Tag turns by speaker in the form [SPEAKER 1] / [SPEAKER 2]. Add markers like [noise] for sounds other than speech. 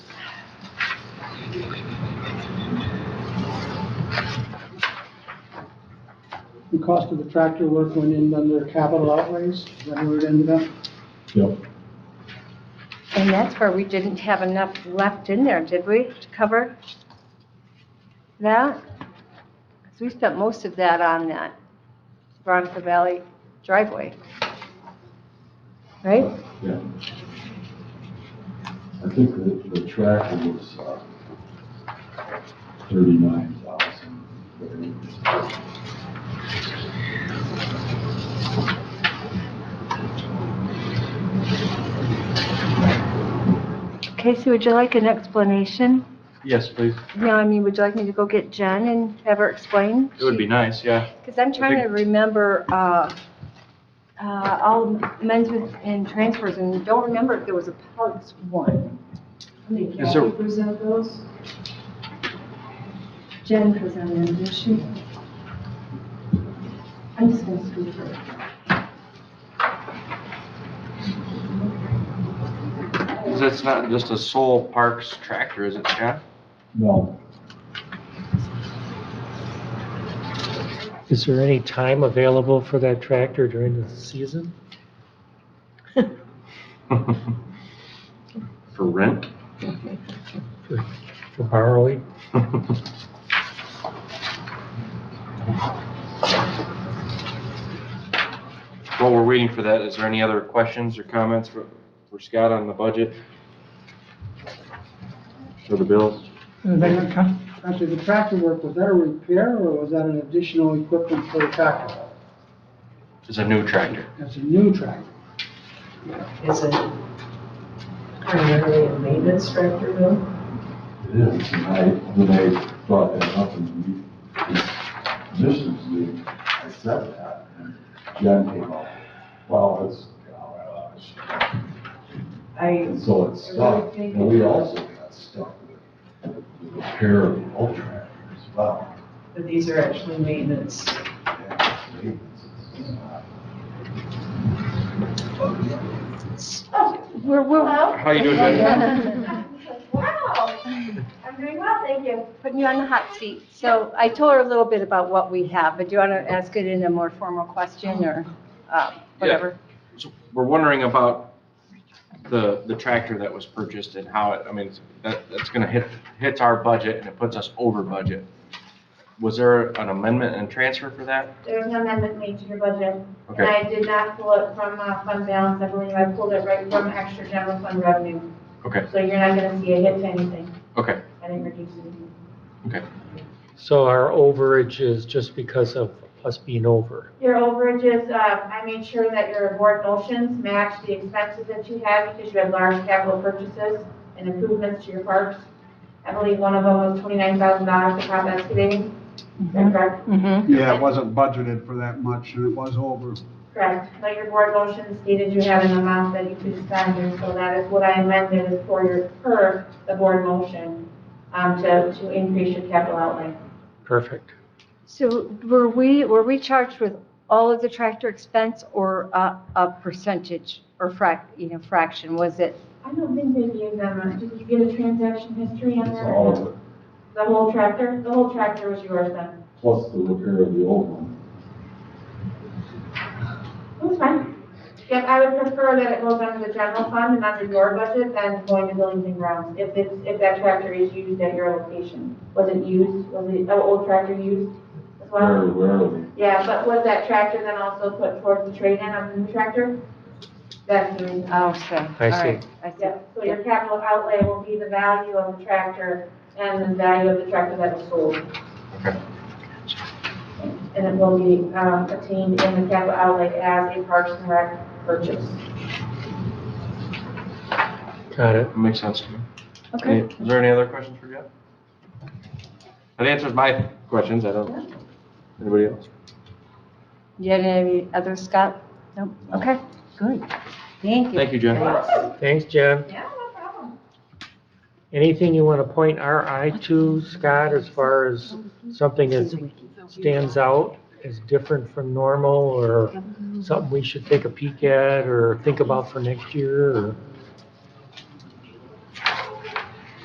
[SPEAKER 1] cost of the tractor work went in under capital outlays, is that where it ended up?
[SPEAKER 2] Yep.
[SPEAKER 3] And that's where we didn't have enough left in there, did we, to cover that? 'Cause we spent most of that on that Veronica Valley driveway. Right?
[SPEAKER 2] Yeah. I think the, the tractor was, uh, thirty-nine thousand.
[SPEAKER 3] Casey, would you like an explanation?
[SPEAKER 4] Yes, please.
[SPEAKER 3] No, I mean, would you like me to go get Jen and have her explain?
[SPEAKER 4] It would be nice, yeah.
[SPEAKER 3] Because I'm trying to remember, uh, uh, all men's with- and transfers, and don't remember if there was a Pugs one.
[SPEAKER 5] Did
[SPEAKER 4] Is there-
[SPEAKER 5] Kathy present those? Jen presented them, did she? I'm just gonna speak for her.
[SPEAKER 4] It's not just a Soul Parks tractor, is it, Scott?
[SPEAKER 2] No,
[SPEAKER 6] Is there any time available for that tractor during the season?
[SPEAKER 4] [laughs] For [laughs] rent?
[SPEAKER 6] For borrowing?
[SPEAKER 4] While we're waiting for that, is there any other questions or comments for, for Scott on the budget? For the bills?
[SPEAKER 1] After the tractor work, was that a repair or was that an additional equipment for the tractor?
[SPEAKER 4] It's a new tractor.
[SPEAKER 1] That's a new tractor.
[SPEAKER 5] Is it primarily a maintenance tractor though?
[SPEAKER 2] it is, and I, when I brought that up in the commissioners meeting, I said that, and Jen came up, well, it's, oh, my gosh.
[SPEAKER 5] I,
[SPEAKER 2] And so it's stuck, and we also got stuck with the repair of the old tractor as well.
[SPEAKER 5] but these are actually maintenance.
[SPEAKER 2] And it's not-
[SPEAKER 3] We're, we're
[SPEAKER 7] Hello?
[SPEAKER 4] How you doing, Ben?
[SPEAKER 7] [laughs] Wow, I'm doing well, thank you.
[SPEAKER 3] [laughs] putting you on the hot seat. So I told her a little bit about what we have, but do you want to ask it in a more formal question or uh, whatever?
[SPEAKER 4] So We're wondering about the, the tractor that was purchased and how it, I mean, that, that's gonna hit, hits our budget and it puts us over budget. Was there an amendment and transfer for that?
[SPEAKER 7] There was no amendment made to your budget. And
[SPEAKER 4] Okay,
[SPEAKER 7] I did not pull it from uh, fund balance, I believe I pulled it right from extra general fund revenue.
[SPEAKER 4] Okay.
[SPEAKER 7] So you're not gonna see a hit to anything.
[SPEAKER 4] okay.
[SPEAKER 7] I didn't reduce anything.
[SPEAKER 6] So our overage is just because of us being over.
[SPEAKER 7] Your overages, uh, I made sure that your board motions match the expenses that you have because you had large capital purchases and improvements to your parks. I believe one of them was twenty-nine thousand dollars to top excavating. Is that correct?
[SPEAKER 3] Mhm.
[SPEAKER 8] Yeah, it wasn't budgeted for that much, and it was over.
[SPEAKER 7] Correct, but your board motion stated you have an amount that you could spend, and so that is what I amended is for your, per the board motion, um, to, to increase your capital outlay.
[SPEAKER 6] Perfect.
[SPEAKER 3] So were we, were we charged with all of the tractor expense or a a percentage or frac, you know, fraction? Was it,
[SPEAKER 7] I don't think they gave them, a- did you get a transaction history on
[SPEAKER 2] It's
[SPEAKER 7] that?
[SPEAKER 2] all of it,
[SPEAKER 7] The whole tractor, the whole tractor was yours then?
[SPEAKER 2] plus the repair of the old one.
[SPEAKER 7] It was fine. Yep, I would prefer that it goes under the general fund and under your budget than going to buildings and grounds, if it's, if that tractor is used at your location. Was it used, was it, the old tractor used as well?
[SPEAKER 2] Very rarely.
[SPEAKER 7] Yeah, but was that tractor then also put towards the trade-in of the new tractor? That's the reason.
[SPEAKER 3] oh, so, all
[SPEAKER 6] I see.
[SPEAKER 3] right. I see.
[SPEAKER 7] Yeah, so your capital outlay will be the value of the tractor and the value of the tractor that was sold.
[SPEAKER 4] Okay.
[SPEAKER 7] And it will be, um, obtained in the capital outlay as a Parks and Rec purchase.
[SPEAKER 6] Got it.
[SPEAKER 4] That makes sense to me. Okay. Is there any other questions for Jeff? That answers my questions, I don't, anybody else?
[SPEAKER 3] You had any other, Scott? Nope. Okay, good. Thank you.
[SPEAKER 4] Thank you, Jen.
[SPEAKER 6] Thanks, Jen.
[SPEAKER 7] Yeah, no problem.
[SPEAKER 6] Anything you want to point our eye to, Scott, as far as something that stands out as different from normal or something we should take a peek at or think about for next year or?